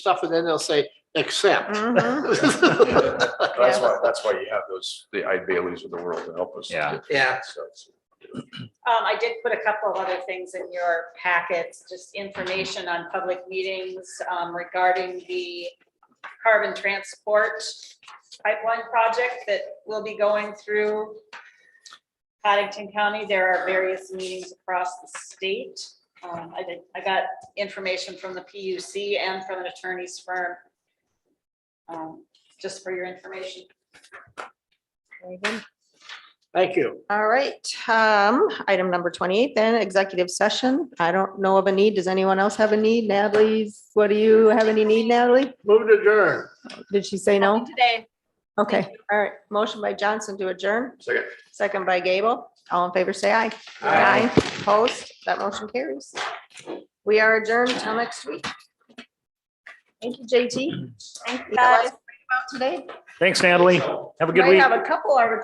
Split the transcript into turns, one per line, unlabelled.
stuff and then they'll say, except.
Mhm.
That's why, that's why you have those, the I Baileys of the world to help us.
Yeah.
Yeah.
So it's-
Um, I did put a couple of other things in your packets, just information on public meetings, um, regarding the carbon transport pipeline project that will be going through Paddington County. There are various meetings across the state. Um, I did, I got information from the PUC and from an attorney's firm. Um, just for your information.
Very good.
Thank you.
All right, um, item number twenty-eight then, executive session. I don't know of a need. Does anyone else have a need? Natalie's, what do you have any need, Natalie?
Move to adjourn.
Did she say no?
Today.
Okay, all right. Motion by Johnson to adjourn,
Second.
second by Gable. All in favor, say aye.
Aye.
Opposed, that motion carries. We are adjourned till next week. Thank you, JT. Thank you.
guys.
About today.
Thanks, Natalie. Have a good
Might
week.
have a couple articles